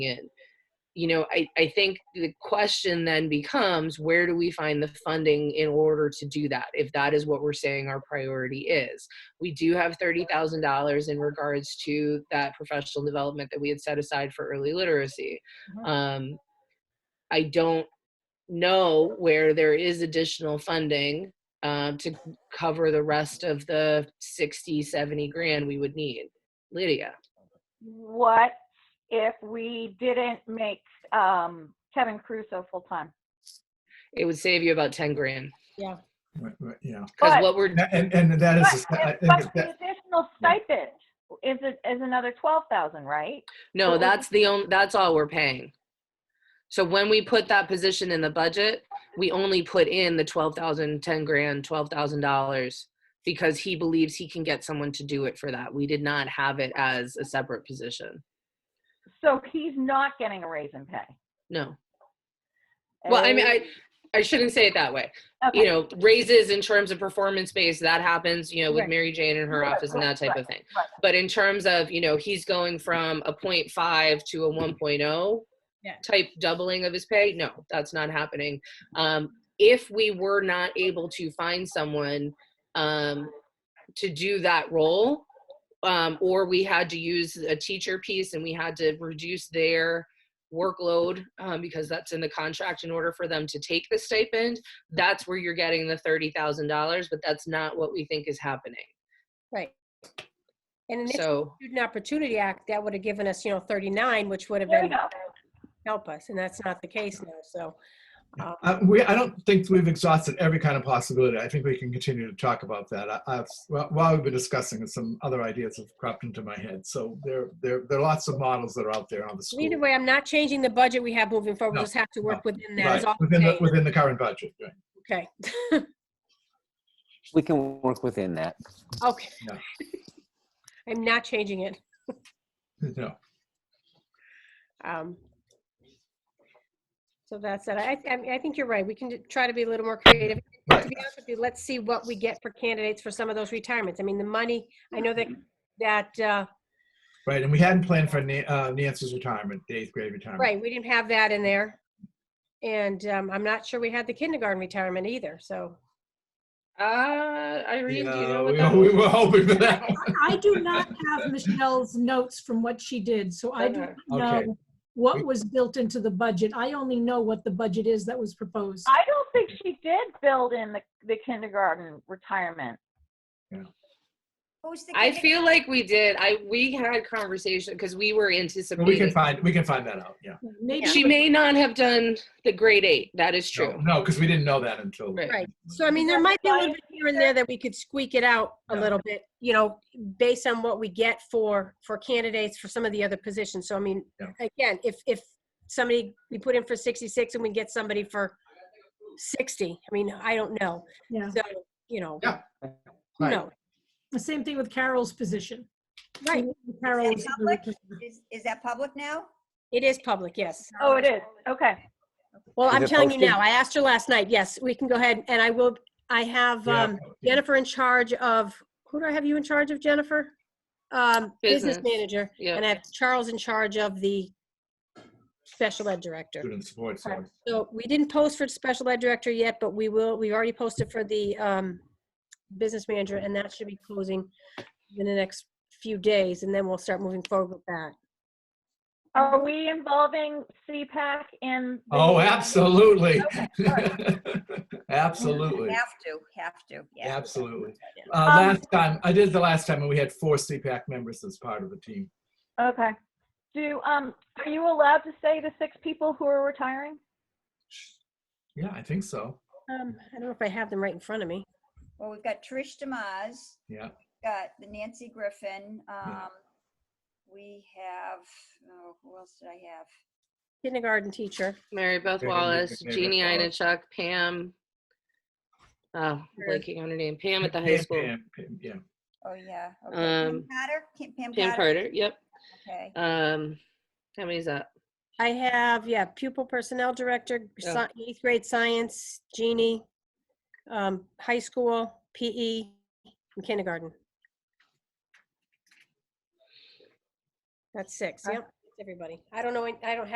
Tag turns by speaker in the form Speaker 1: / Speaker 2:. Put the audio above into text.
Speaker 1: in you know I, I think the question then becomes where do we find the funding in order to do that if that is what we're saying our priority is we do have $30000 in regards to that professional development that we had set aside for early literacy um, i don't know where there is additional funding um, to cover the rest of the 60 70 grand we would need lydia
Speaker 2: What if we didn't make um, Kevin Crusoe full-time?
Speaker 1: it would save you about 10 grand
Speaker 3: Right, right, Yeah,
Speaker 1: because
Speaker 2: But-
Speaker 1: what we're
Speaker 3: and, and that
Speaker 2: But
Speaker 3: is, I
Speaker 2: but
Speaker 3: think
Speaker 2: the
Speaker 3: that,
Speaker 2: additional stipend is, a- is another 12,000, right?
Speaker 1: No,
Speaker 2: But we-
Speaker 1: that's the only, that's all we're paying. So when we put that position in the budget, we only put in the twelve thousand, ten grand, twelve thousand dollars because he believes he can get someone to do it for that. We did not have it as a separate position.
Speaker 2: So he's not getting a raise in pay.
Speaker 1: No. Well, I mean, I, I shouldn't say it that way. You
Speaker 2: Eh, Okay.
Speaker 1: know, raises in terms of performance based, that happens, you know, with
Speaker 2: Right.
Speaker 1: Mary Jane and her
Speaker 2: Right,
Speaker 1: office and that type of
Speaker 2: right,
Speaker 1: thing.
Speaker 2: right.
Speaker 1: But in terms of, you know, he's going from a 0.5 to a 1.0
Speaker 4: Yeah.
Speaker 1: type doubling of his pay, no, that's not happening. Um, if we were not able to find someone um, to do that role, um, or we had to use a teacher piece and we had to reduce their workload um, because that's in the contract in order for them to take the stipend,
Speaker 2: Mm-hmm.
Speaker 1: that's where you're getting the $30,000, but that's not what we think is happening.
Speaker 4: Right. And in this
Speaker 1: So,
Speaker 4: Student Opportunity Act, that would have given us, you know, 39, which would have
Speaker 2: There you
Speaker 4: been,
Speaker 2: go.
Speaker 4: help us, and that's not the case now, so. uh,
Speaker 3: uh, we, I don't think we've exhausted every kind of possibility. I think we can continue to talk about that. I, I, well, while we've been discussing, it, some other ideas have cropped into my head. So there, there, there are lots of models that are out there on the school.
Speaker 4: Either way, I'm not changing the budget we have moving forward,
Speaker 3: No,
Speaker 4: we just have to work within that,
Speaker 3: Right,
Speaker 4: is all I'm
Speaker 3: within the,
Speaker 4: saying.
Speaker 3: within the current budget, right.
Speaker 4: okay.
Speaker 5: We can work within that.
Speaker 4: Okay.
Speaker 3: Yeah.
Speaker 4: I'm not changing it.
Speaker 3: No,
Speaker 4: Um, So that's it. I, I mean, I think you're right. We can ju- try to be a little more creative. To
Speaker 3: right.
Speaker 4: be honest with you, let's see what we get for candidates for some of those retirements. I mean, the money, I know
Speaker 3: Mm-hmm.
Speaker 4: that, that, uh,
Speaker 3: Right, and we hadn't planned for Na- uh, Nancy's retirement, the eighth grade retirement.
Speaker 4: right, we didn't have that in there. And um, I'm not sure we had the kindergarten retirement either, so.
Speaker 1: uh, Irene, do you know what
Speaker 3: Yeah,
Speaker 1: that
Speaker 3: we-
Speaker 1: was?
Speaker 3: We were hoping for that. one.
Speaker 6: I do not have Michelle's notes from what she did, so I do
Speaker 1: Okay.
Speaker 6: not
Speaker 3: Okay.
Speaker 6: know what was built into the budget. I only know what the budget is that was proposed.
Speaker 2: I don't think she did build in the, the kindergarten retirement.
Speaker 7: Who's the
Speaker 1: I
Speaker 7: kindergarten-
Speaker 1: feel like we did. I we had conversation because we were
Speaker 3: But We can
Speaker 1: anticipating.
Speaker 3: find, we can find that out, yeah.
Speaker 6: Maybe
Speaker 1: She may not have done the grade eight. That is
Speaker 3: No,
Speaker 1: true.
Speaker 3: No, because we didn't know that until.
Speaker 1: Right.
Speaker 4: Right, so I mean, there might be a little bit here and there that we could squeak it out a
Speaker 3: Yeah.
Speaker 4: little bit, you know, based on what we get for, for candidates for some of the other positions. So I mean,
Speaker 3: Yeah.
Speaker 4: again, if, if somebody, we put in for 66 and we get somebody for 60, I mean, I don't know.
Speaker 6: Yeah,
Speaker 4: So, you know,
Speaker 3: Yeah,
Speaker 4: who
Speaker 3: right.
Speaker 4: knows?
Speaker 6: the same thing with Carol's position.
Speaker 4: Right,
Speaker 6: Carol
Speaker 7: Is
Speaker 6: was
Speaker 7: that public? Is, is that public now?
Speaker 4: it is public, yes.
Speaker 2: Oh, it is. Okay.
Speaker 4: Well,
Speaker 5: Is
Speaker 4: I'm
Speaker 5: it
Speaker 4: telling you
Speaker 5: posted?
Speaker 4: now, I asked her last night, yes, we can go ahead, and I will, I have
Speaker 3: Yeah,
Speaker 4: um,
Speaker 3: yeah.
Speaker 4: Jennifer in charge of, who do I have you in charge of, Jennifer? Um, Business
Speaker 1: Business.
Speaker 4: manager,
Speaker 1: Yeah.
Speaker 4: and I have Charles in charge of the special ed director.
Speaker 3: Student support, so.
Speaker 4: So we didn't post for special ed director yet, but we will, we already posted for the um, business manager, and that should be closing in the next few days, and then we'll start moving forward with that.
Speaker 2: Are we involving CPAC in? the-
Speaker 3: Oh, absolutely.
Speaker 2: Okay,
Speaker 3: Absolutely,
Speaker 7: Have to, have to, yeah.
Speaker 3: absolutely.
Speaker 7: Yeah.
Speaker 3: Uh, Last time, I did the last time, and we had four CPAC members as part of the team.
Speaker 2: Okay. Do, um, are you allowed to say the six people who are retiring?
Speaker 3: Yeah, I think so.
Speaker 4: Um, I don't know if I have them right in front of me.
Speaker 7: Well, we've got Trish Demas,
Speaker 3: Yeah,
Speaker 7: got the Nancy Griffin, um, we have, oh, who else did I have?
Speaker 4: Kindergarten teacher.
Speaker 1: Mary Beth
Speaker 3: Mary Beth-
Speaker 1: Wallace,
Speaker 3: Mary Beth
Speaker 1: Jeannie
Speaker 3: Wallace.
Speaker 1: Inachuk, Pam. Oh, I'm
Speaker 4: Sure.
Speaker 1: blanking on her name. Pam at the high
Speaker 3: Pam-
Speaker 1: school.
Speaker 3: Pam- Pam, Yeah,
Speaker 7: Oh, yeah. okay.
Speaker 1: Um,
Speaker 7: Pam Carter? Kim- Pam
Speaker 1: Pam
Speaker 7: Carter?
Speaker 1: Carter. Yep.
Speaker 7: Okay.
Speaker 1: Um, how many's that?
Speaker 4: I have, yeah, pupil personnel director,
Speaker 1: Yeah.
Speaker 4: sci- eighth grade science, Jeannie, um, high school, PE, and kindergarten. That's six,
Speaker 2: Okay.
Speaker 4: yep, everybody. I don't know, I don't have